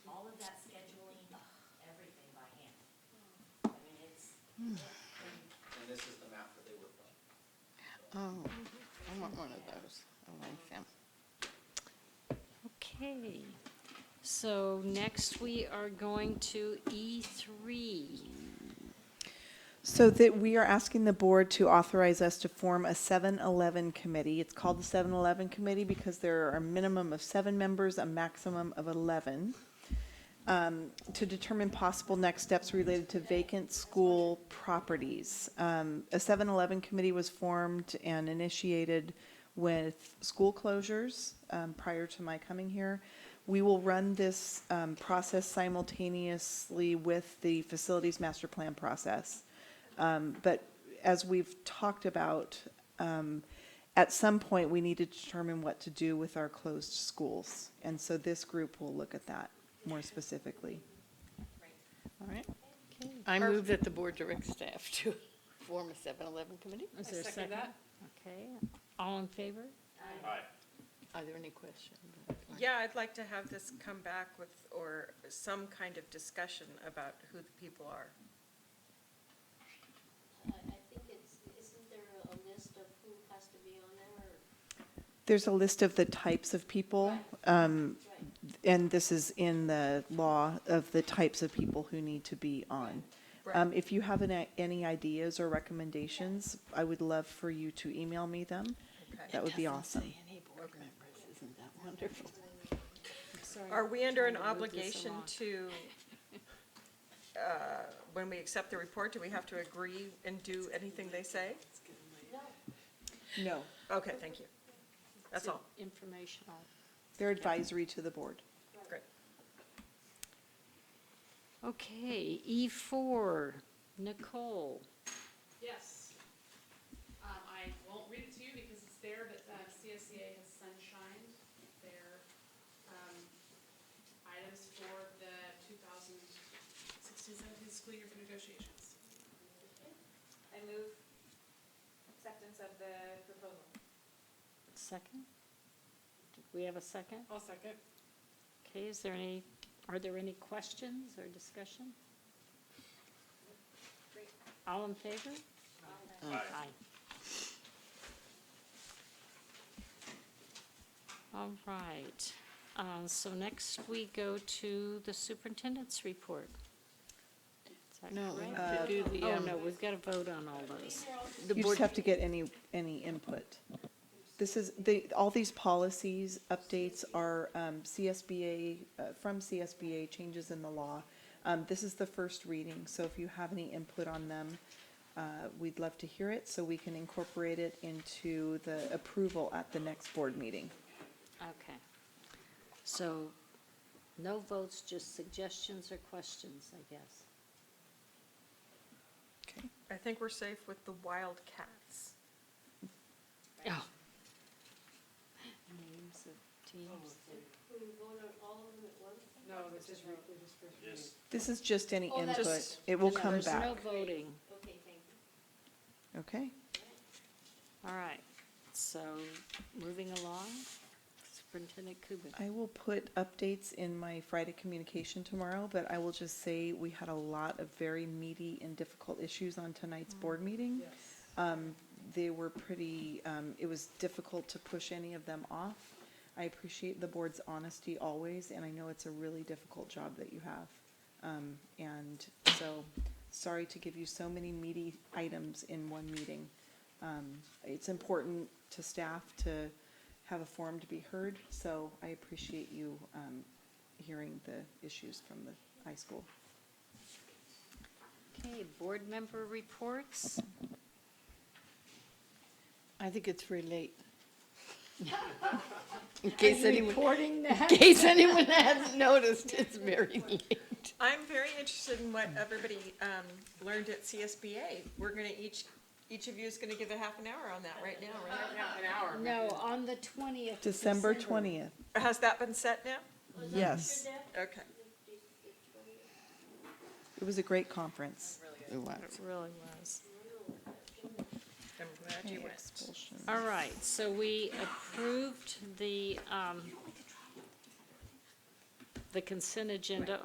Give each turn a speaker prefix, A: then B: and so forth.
A: Oh, I want one of those. I like them.
B: Okay, so next we are going to E E3.
C: So that we are asking the board to authorize us to form a 7-Eleven committee. It's called the 7-Eleven committee because there are a minimum of seven members, a maximum of 11, um, to determine possible next steps related to vacant school properties. Um, A 7-Eleven committee was formed and initiated with school closures um, prior to my coming here. We will run this um, process simultaneously with the facilities master plan process. Um, But as we've talked about, um, at some point, we need to determine what to do with our closed schools. And so this group will look at that more specifically.
A: All right. I move that the board direct staff to form a 7-Eleven committee.
B: Is there a second? Okay, all in favor?
A: Are there any questions?
D: Yeah, I'd like to have this come back with, or some kind of discussion about who the people are.
E: I I think it's, isn't there a list of who has to be on there or?
C: There's a list of the types of people, um, and this is in the law of the types of people who need to be on. Um, If you have any- any ideas or recommendations, I would love for you to email me them. That would be awesome.
A: any board members. Isn't that wonderful?
D: Are we under an
B: Trying to move this
D: obligation
B: along.
D: to, uh, when we accept the report, do we have to agree and do anything they say?
C: No.
D: Okay, thank you. That's all.
B: Informational.
C: They're advisory to the board.
D: Great.
B: Okay, E4, Nicole.
F: Yes. Um, I won't read it to you because it's there, but, uh, CSCA has sunshined their, um, items for the 2016-17 school year for negotiations.
G: I move acceptance of the proposal.
B: Second? Did we have a second?
F: I'll second.
B: Okay, is there any, are there any questions or discussion? All in favor? Aye. All right, uh, so next we go to the superintendent's report. Is that
A: No, we
B: correct?
A: have to do the,
B: Oh,
A: um,
B: no, we've got to vote on all those.
A: the
C: You
A: board.
C: just have to get any, any input. This is, the, all these policies, updates are um, CSBA, uh, from CSBA, changes in the law. Um, This is the first reading, so if you have any input on them, uh, we'd love to hear it, so we can incorporate it into the approval at the next board meeting.
B: Okay. So no votes, just suggestions or questions, I guess.
D: I think we're safe with the wild cats.
B: Oh. Names of teams.
E: Who vote on all of them at once?
F: No, this is,
C: This is just any
E: Oh, that's-
C: input. It will come
B: There's no
C: back.
B: voting.
E: Okay, thank you.
C: Okay?
B: All right, so moving along, Superintendent Coogan.
C: I will put updates in my Friday communication tomorrow, but I will just say we had a lot of very meaty and difficult issues on tonight's board meeting. Um, They were pretty, um, it was difficult to push any of them off. I appreciate the board's honesty always, and I know it's a really difficult job that you have. Um, And so, sorry to give you so many meaty items in one meeting. Um, It's important to staff to have a forum to be heard, so I appreciate you um, hearing the issues from the high school.
B: Okay, board member reports.
A: I think it's very late. In case anyone,
B: Reporting
A: in
B: that.
A: case anyone hasn't noticed, it's very late.
D: I'm very interested in what everybody um, learned at CSBA. We're going to each, each of you is going to give a half an hour on that right now, right?
F: an hour.
B: No, on the twentieth.
C: December 20th,
D: Has that been set now?
C: yes.
D: Okay.
C: It was a great conference.
A: It was.
B: Really was.
D: I'm glad you
C: Hey,
D: went.
C: expulsion.
B: All right, so we approved the, um, the consent agenda